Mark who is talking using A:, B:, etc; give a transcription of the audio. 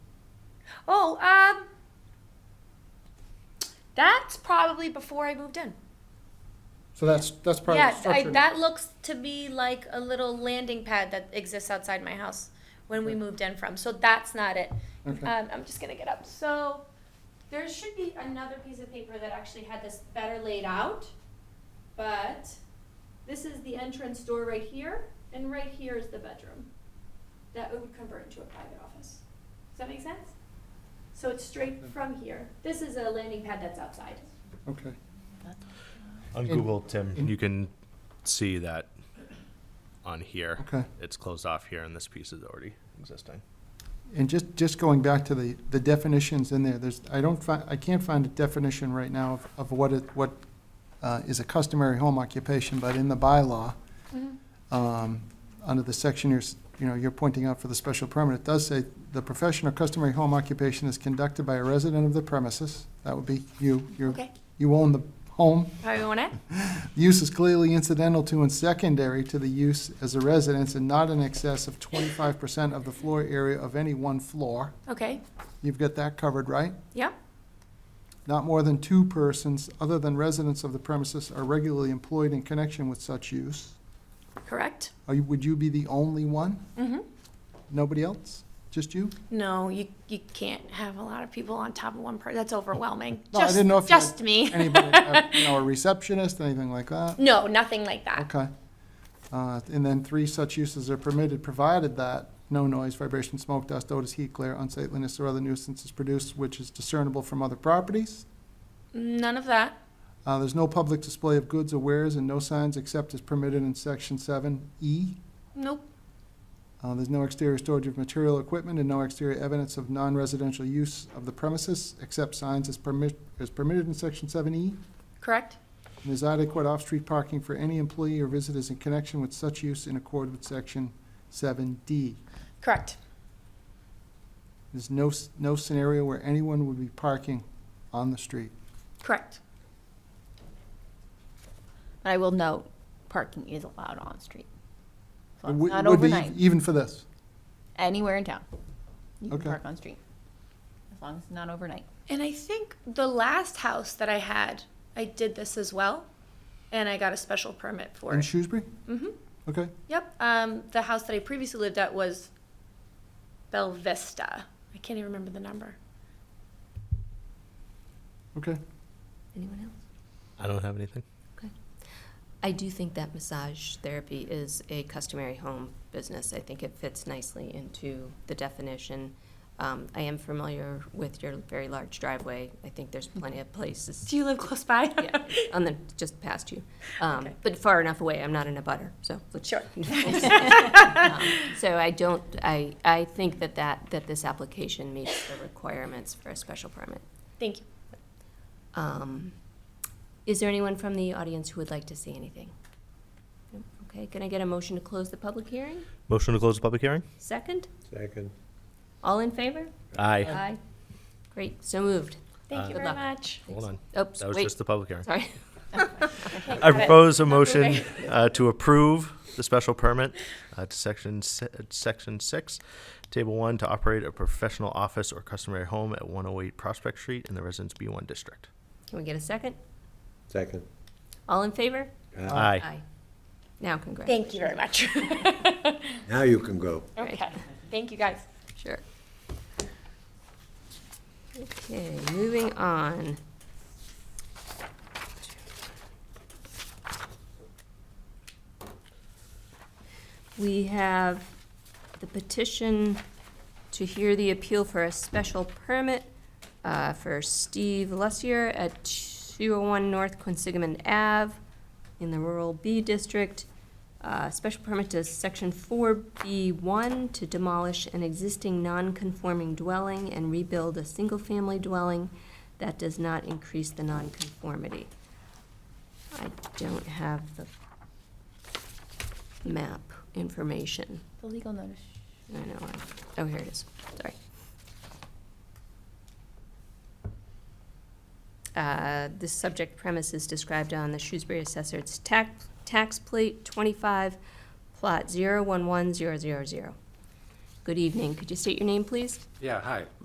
A: Oh, um, that's probably before I moved in.
B: So that's, that's part of
A: yeah,
B: the
A: I,
B: structure.
A: that looks to be like a little landing pad that exists outside my house when we
B: Okay.
A: moved in from. So that's not it.
B: Okay,
A: Um, I'm just gonna get up. So there should be another piece of paper that actually had this better laid out, but
C: This is the entrance door right here, and right here is the bedroom. That would convert into a private office. Does that make sense? So it's straight from here. This is a landing pad that's outside.
A: uh,
B: okay.
D: On
B: In-
D: Google, Tim,
B: in-
D: you can see that on here.
B: Okay.
D: It's closed off here and this piece is already existing.
B: And just, just going back to the, the definitions in there, there's, I don't find, I can't find a definition right now of, of what it, what, uh, is a customary home occupation, but in the bylaw,
A: Mm-hmm.
B: um, under the section you're, s- you know, you're pointing out for the special permit, it does say, the profession or customary home occupation is conducted by a resident of the premises, that would be you, you're,
A: okay.
B: you own the home,
A: Probably want it.
B: Use is clearly incidental to and secondary to the use as a residence and not in excess of twenty-five percent of the floor area of any one floor.
A: Okay.
B: You've got that covered, right?
A: Yep.
B: Not more than two persons, other than residents of the premises, are regularly employed in connection with such use.
A: Correct.
B: Are you, would you be the only one?
A: Mm-hmm.
B: Nobody else? Just you?
A: No, you you can't have a lot of people on top of one person. That's overwhelming.
B: No, I
A: just
B: didn't know if you had
A: just me.
B: Anybody, uh, you know, a receptionist, anything like that?
A: No, nothing like that.
B: Okay. Uh, And then three such uses are permitted, provided that no noise, vibration, smoke, dust, odors, heat, glare, unsightliness, or other nuisance is produced which is discernible from other properties.
A: None of that.
B: Uh, There's no public display of goods or wares and no signs except as permitted in section seven E.
A: Nope.
B: Uh, There's no exterior storage of material equipment and no exterior evidence of non-residential use of the premises except signs as permit, as permitted in section seven E.
A: Correct.
B: And There's adequate off-street parking for any employee or visitors in connection with such use in accord with section seven D.
A: Correct.
B: There's no, s- no scenario where anyone would be parking on the street.
A: Correct.
E: I will note, parking is allowed on street. So
B: It
E: it's
B: would-
E: not
B: would be ev-
E: overnight,
B: Even for this,
E: anywhere in town. You can
B: Okay.
E: park on street, as long as it's not overnight.
A: And I think the last house that I had, I did this as well, and I got a special permit for
B: in
A: it.
B: Shrewsbury?
A: Mm-hmm.
B: Okay,
A: Yep. Um, the house that I previously lived at was Bell Vista. I can't even remember the number.
B: okay.
F: Anyone else?
D: I don't have anything.
F: I do think that massage therapy is a customary home business. I think it fits nicely into the definition. Um, I am familiar with your very large driveway. I think there's plenty of places
A: Do you live close by?
F: yeah, on the just past you, um,
A: Okay.
F: but far enough away. I'm not in a butter, so let's
A: Sure.
F: Um, so I don't. I I think that that that this application meets the requirements for a special permit.
A: Thank you.
F: Um, Is there anyone from the audience who would like to say anything? No? Okay, can I get a motion to close the public hearing?
D: Motion to close the public hearing?
F: Second?
G: Second.
F: All in favor?
D: Aye.
F: Aye. Great, so moved.
A: Thank
D: Uh,
A: you
F: Good
A: very
F: luck.
A: much.
D: Hold on.
F: Oops,
D: That was
F: wait,
D: just the public hearing.
F: sorry.
D: I propose a motion
A: moving.
D: uh, to approve the special permit uh, to section, si- uh, section six, table one, to operate a professional office or customary home at one oh eight Prospect Street in the Residence B one district.
F: Can we get a second?
G: Second.
F: All in favor?
B: Aye.
F: Now, congrats.
A: Thank you very much.
G: Now you can go.
A: okay. Thank you guys.
F: Sure. Okay, moving on. We have the petition to hear the appeal for a special permit uh, for Steve Lussier at 201 North Quinsigamond Ave in the Rural B District. Uh, Special permit to Section 4B1 to demolish an existing non-conforming dwelling and rebuild a single-family dwelling that does not increase the nonconformity. I don't have the map information.
E: The legal notice.
F: I know, I- oh, here it is, sorry. Uh, The subject premise is described on the Shrewsbury Assessor's tax, tax plate twenty-five, plot zero one one zero zero zero. Good evening, could you state your name, please?
H: Yeah, hi.